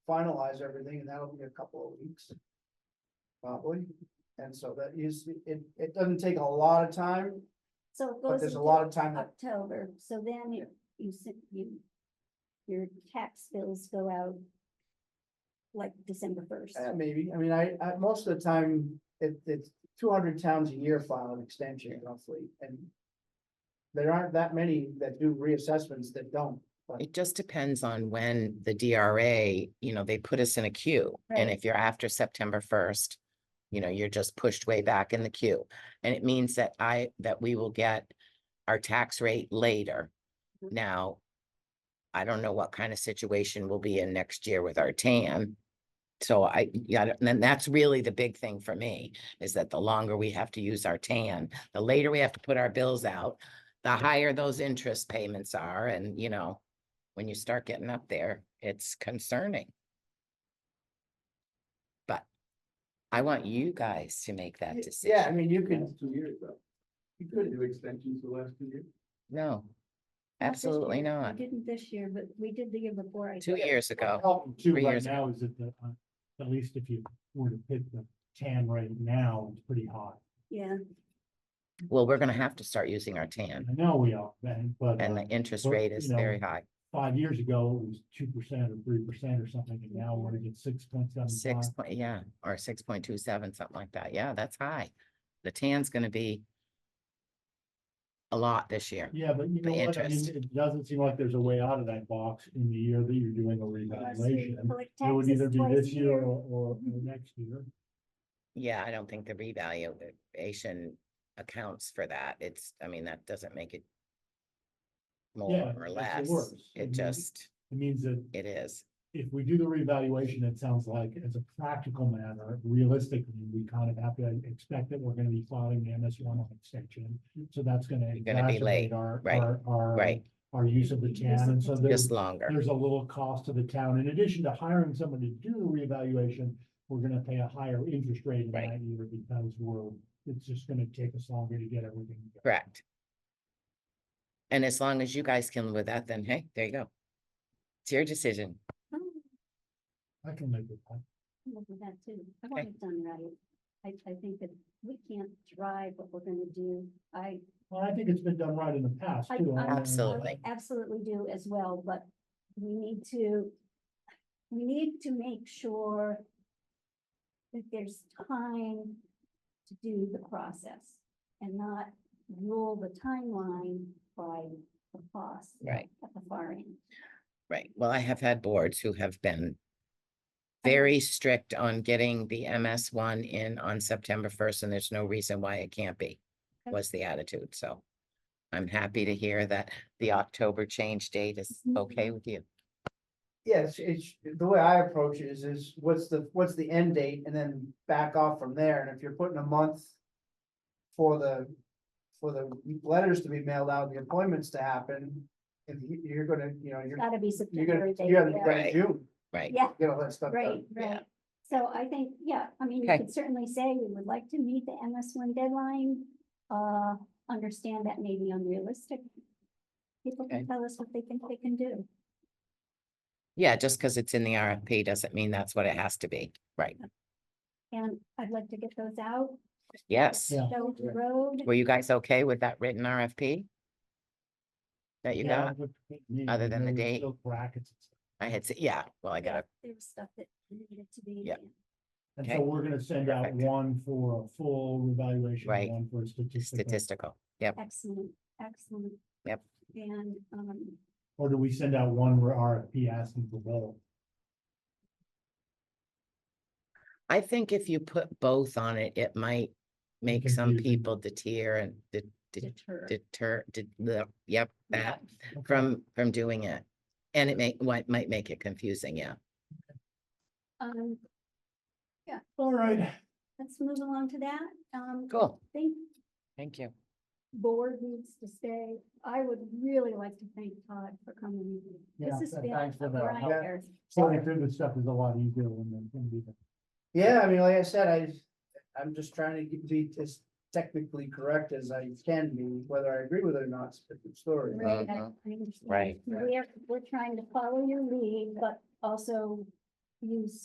finalize everything, and that'll be a couple of weeks. Probably, and so that is, it, it doesn't take a lot of time, So it but goes there's a into lot of time that October, so then you, you, sent- you, your tax bills go out like December first. Uh, maybe, I mean, I, I, most of the time, it, it's two hundred towns a year file an extension roughly, and. There aren't that many that do reassessments that don't, It just depends on when the DRA, you know, they put us in a queue. And Right. if you're after September first, you know, you're just pushed way back in the queue. And it means that I, that we will get our tax rate later. Mhm. Now, I don't know what kind of situation we'll be in next year with our TAM. So I, yeah, I don't- and that's really the big thing for me, is that the longer we have to use our TAM, the later we have to put our bills out, the higher those interest payments are, and you know, when you start getting up there, it's concerning. But I want you guys to make that yeah, I decision. mean, you could, Last two years though. you Did could, you do extensions the last two years? No, Not this absolutely year. We not. Didn't this year, but we did the year before. I Two think. years ago, Problem too Three right years now is that the, uh, at least if you were to pick the TAM right now, it's pretty high. Yeah, well, we're gonna have to start using our And TAM I know we are, man, but and uh, the interest but, rate you is know, very high, five years ago, it was two percent or three percent or something, and now we're at six point seven five. six, point- yeah, or six point two seven, something like that. Yeah, that's high. The TAM's gonna be a lot this year. Yeah, but you The know what, I mean, interest. it doesn't seem like there's a way out of that box in the year that you're doing a Plus we revaluation. collect It would taxes either be twice a this year Mm-hmm. year. or, or or next year. Yeah, I don't think the revaluation accounts for that. It's, I mean, that doesn't make it more Yeah, or it's the less. worst. I It mean, just, It means that it is. if we do the revaluation, it sounds like as a practical matter, realistically, we kind of have to expect that we're gonna be filing the MS one on extension. So that's gonna You're gonna be late, exacerbate our, right, our, our, right. our use of the town. And so there's, Just longer. there's a little cost to the town. In addition to hiring someone to do the reevaluation, we're gonna pay a higher interest rate in Right. that year because we're, it's just gonna take us longer to get everything. done. Correct. And as long as you guys can live with that, then hey, there you go. It's your decision. Oh. I can live with that. Look at that too. I Okay. want it done right. I, I think that we can't drive what we're gonna do. I, Well, I think it's been done right in the past I- too. I- I mean, Absolutely. absolutely do as well, but we need to, we need to make sure that there's time to do the process and not rule the timeline by the cost Right. at the far end. Right. Well, I have had boards who have been I- very strict on getting the MS one in on September first, and there's no reason why it can't be, Okay. was the attitude. So I'm happy to hear that the October change date is Mhm. okay with you. yes, it's, the way I approach it is, is what's the, what's the end date, and then back off from there, and if you're putting a month. For the, for the letters to be mailed out, the appointments to happen, if you, you're gonna, you know, It's you're, gotta be you're September. gonna, they- you're gonna, yeah. you're in June, Right. Yeah, get all that stuff done. Right, Yeah. right. So I think, yeah, I mean, you Okay. could certainly say we would like to meet the MS one deadline. Uh, understand that may be unrealistic. People Okay. can tell us what they think they can do. Yeah, just because it's in the RFP doesn't mean that's what it has to be. Right. And I'd like to get those out, Yes. Yeah. show the road. Were you guys okay with that written RFP? That you Yeah, got? but- but me, other you than the know, date? still Brackets. and stuff. I had, s- yeah, well, I got it. There was stuff that needed to be. Yep. And Okay. so we're gonna send out Perfect. one for a full revaluation, Right. one for a statistical. Statistical. Yep. Excellent, excellent. Yep. And, um, Or do we send out one where RFP asking for both? I think if you put both on it, it might make some confusing. people deter and de- de- deter. deter, de- the- yep, Yeah. that from, from doing it. And it may, might, might make it confusing, yeah. Um, All right, let's move along to that. Um, Cool. I think Thank you. board needs to stay. I would really like to thank Todd for coming. This Yeah, has th- been thanks for a that. Yeah. grinder. sorting through this stuff is a lot easier when they're gonna be. Yeah, I mean, like I said, I, I'm just trying to get- be as technically correct as I can be, whether I agree with it or not, it's a different story. Right, I- Mhm. I understand. Right. We're, we're trying to follow your lead, but also use